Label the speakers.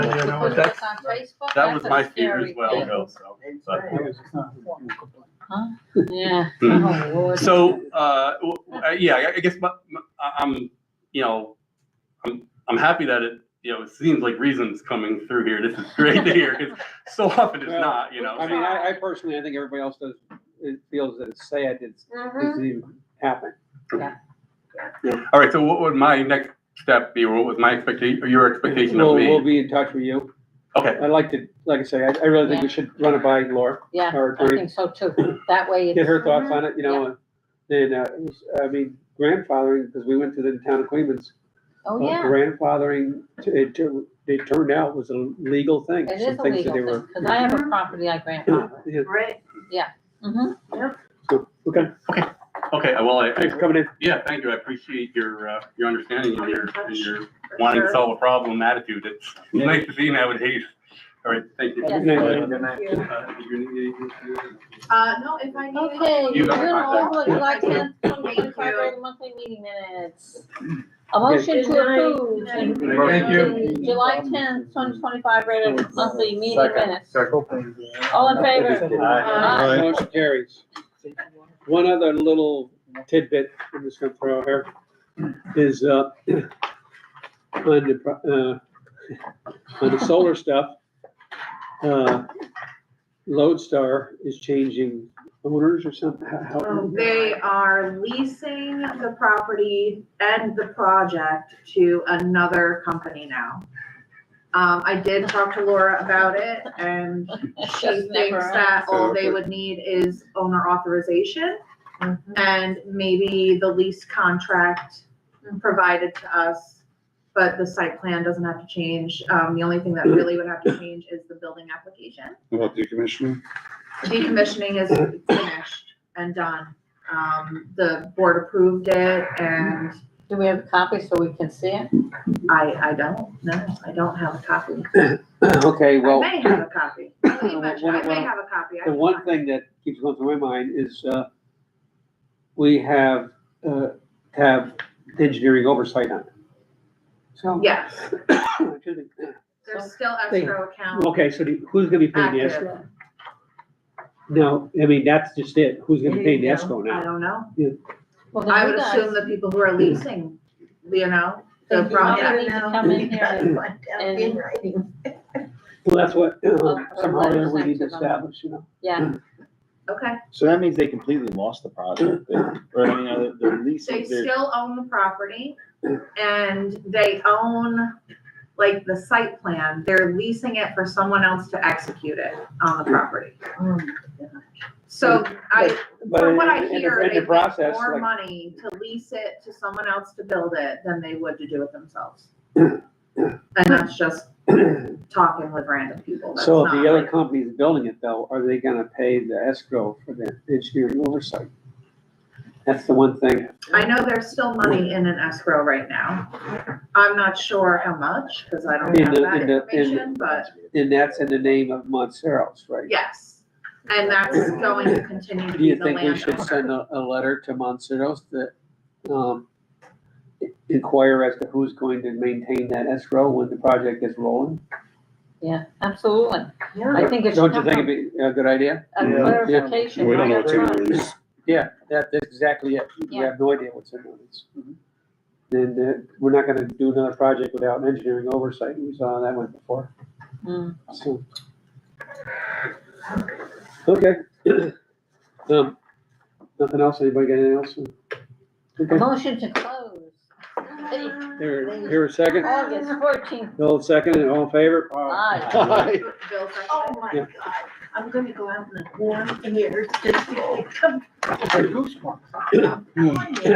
Speaker 1: But that,
Speaker 2: on Facebook?
Speaker 1: that was
Speaker 2: That's a
Speaker 1: my fear
Speaker 2: scary
Speaker 1: as well,
Speaker 2: thing.
Speaker 1: Bill, so.
Speaker 2: Yeah.
Speaker 1: Hmm.
Speaker 2: Oh, Lord.
Speaker 1: So, uh, w- w- uh, yeah, I- I guess my, my- I- I'm, you know, I'm, I'm happy that it, you know, it seems like reason's coming through here. This is great to hear, 'cause so often it's
Speaker 3: Well,
Speaker 1: not, you know.
Speaker 3: I mean, I, I personally, I think everybody else does, it feels that it's sad it's,
Speaker 2: Mhm.
Speaker 3: it's even happened.
Speaker 1: All right, so what would my next step be, or what was my expectation, or your expectation
Speaker 3: We'll,
Speaker 1: of
Speaker 3: we'll
Speaker 1: me?
Speaker 3: be in touch with you.
Speaker 1: Okay,
Speaker 3: I'd like to, like I say, I, I really think we should run it by Laura,
Speaker 2: Yeah,
Speaker 3: our
Speaker 2: I
Speaker 3: attorney,
Speaker 2: think so too. That way. it's-
Speaker 3: get her thoughts on it, you know, and then, uh, it was- I mean, grandfathering, because we went to the town of Queens.
Speaker 2: Oh, yeah.
Speaker 3: Grandfathering, t- it, tur- it turned out was a legal thing.
Speaker 2: It is a
Speaker 3: Some things that
Speaker 2: legal
Speaker 3: they
Speaker 2: thing,
Speaker 3: were.
Speaker 2: because I
Speaker 4: Mm-hmm.
Speaker 2: have a property I
Speaker 3: Yeah,
Speaker 2: grandfather.
Speaker 3: yeah,
Speaker 4: Right.
Speaker 2: Mm-hmm.
Speaker 3: so, Okay,
Speaker 1: okay, uh, well, I,
Speaker 3: thanks
Speaker 1: I,
Speaker 3: for coming in.
Speaker 1: yeah, thank you. I appreciate your, uh, your understanding and your, and your wanting to solve a problem attitude. It's nice to see nowadays. All right, thank you.
Speaker 2: Yeah.
Speaker 3: Good night.
Speaker 4: Thank you.
Speaker 1: Uh, you- you- you-
Speaker 4: Uh, no, if I need.
Speaker 2: Okay,
Speaker 1: You
Speaker 2: you
Speaker 1: got
Speaker 2: know,
Speaker 1: contact.
Speaker 2: would you like to,
Speaker 4: Thank you.
Speaker 2: the monthly meeting minutes? A motion
Speaker 4: Good
Speaker 2: to
Speaker 4: night.
Speaker 2: approve.
Speaker 4: Thank
Speaker 2: the
Speaker 1: you. Thank
Speaker 4: you.
Speaker 2: July tenth, twenty twenty-five regular monthly meeting
Speaker 5: Second.
Speaker 2: minutes. All in favor? Aye.
Speaker 3: Motion carries. One other little tidbit I'm just gonna throw here is, uh, on the, pro- uh, on the solar stuff, uh, Lodestar is changing owners or something, how? how-
Speaker 4: Um, They are leasing the property and the project to another company now. Um, I did talk to Laura about it and she
Speaker 2: Just never
Speaker 4: thinks that all they
Speaker 1: So-
Speaker 4: would need is owner authorization and maybe the lease contract provided to us. But the site plan doesn't have to change. Um, the only thing that really would have to change is the building application.
Speaker 6: About decommissioning?
Speaker 4: decommissioning is finished and done. Um, the board approved it and
Speaker 2: Do we have a copy so we can see it?
Speaker 4: I, I don't, no, I don't have a copy.
Speaker 3: Okay,
Speaker 4: I
Speaker 3: well.
Speaker 4: may have a copy. I may have I may have a copy. I
Speaker 3: The
Speaker 4: can
Speaker 3: one
Speaker 4: find
Speaker 3: thing that keeps going through my mind is, uh, we have, uh, have engineering oversight on it.
Speaker 4: it.
Speaker 3: So.
Speaker 4: Yes,
Speaker 3: Excuse me.
Speaker 4: there's still escrow account
Speaker 3: Okay, so the- who's gonna be paying the escrow?
Speaker 4: active.
Speaker 3: No, I mean, that's just it. Who's gonna pay the escrow
Speaker 4: I
Speaker 3: now?
Speaker 4: don't know.
Speaker 2: Well, then
Speaker 4: I
Speaker 2: you
Speaker 4: would
Speaker 2: guys-
Speaker 4: assume the people who
Speaker 3: Hmm.
Speaker 4: are leasing, you know, the
Speaker 2: Then you all
Speaker 4: project.
Speaker 2: need to come in here and- and-
Speaker 3: Well, that's what, uh,
Speaker 2: Well,
Speaker 3: somehow
Speaker 2: well,
Speaker 3: or other we need to
Speaker 2: it's actually-
Speaker 3: establish, you know.
Speaker 2: Yeah,
Speaker 4: Okay,
Speaker 5: So that means they completely lost the project, they- or, you know, the lease,
Speaker 4: they
Speaker 5: their
Speaker 4: still own the property and they own like the site plan. They're leasing it for someone else to execute it on the property.
Speaker 2: Oh
Speaker 4: So I,
Speaker 3: But
Speaker 4: from what I
Speaker 3: in the-
Speaker 4: hear,
Speaker 3: in
Speaker 4: they
Speaker 3: the
Speaker 4: make
Speaker 3: process,
Speaker 4: more
Speaker 3: like,
Speaker 4: money to lease it to someone else to build it than they would to do it themselves. And that's just talking with random people. That's
Speaker 3: So if
Speaker 4: not
Speaker 3: the other
Speaker 4: like-
Speaker 3: company's building it though, are they gonna pay the escrow for the engineering oversight? That's the one thing.
Speaker 4: I know there's still money in an escrow right now. I'm not sure how much, because I don't
Speaker 3: In
Speaker 4: have
Speaker 3: the-
Speaker 4: that
Speaker 3: in the- in the-
Speaker 4: information, but
Speaker 3: And that's in the name of Montserrat's, right?
Speaker 4: yes. And that's going to continue to
Speaker 3: Do
Speaker 4: be
Speaker 3: you
Speaker 4: the
Speaker 3: think we should send
Speaker 4: landowner.
Speaker 3: a, a letter to Montserrat's that, um, inquire as to who's going to maintain that escrow when the project is rolling?
Speaker 2: yeah, absolutely. I think it should
Speaker 3: Don't you
Speaker 2: come
Speaker 3: think
Speaker 2: from
Speaker 3: it'd be a good idea?
Speaker 2: a
Speaker 6: Yeah.
Speaker 2: clarification.
Speaker 6: We don't know
Speaker 2: right
Speaker 6: what's in
Speaker 2: up
Speaker 6: the
Speaker 2: front.
Speaker 6: lease.
Speaker 3: Yeah, that, that's exactly it. We
Speaker 2: Yeah. Mm-hmm.
Speaker 3: have no idea what's in those. And, uh, we're not gonna do another project without engineering oversight. We saw that one before,
Speaker 2: Mm.
Speaker 3: so. Okay. Um, nothing else? Anybody got anything else? Okay,
Speaker 2: Motion to close.
Speaker 3: here, here a second.
Speaker 2: August fourteenth,
Speaker 3: Bill second, and all in favor?
Speaker 2: aye.
Speaker 5: Hi.
Speaker 4: Bill seconded.
Speaker 7: Oh my
Speaker 3: Yeah.
Speaker 7: God, I'm gonna go out in the warm air. It's just-
Speaker 3: Goosebumps.
Speaker 7: I'm telling you.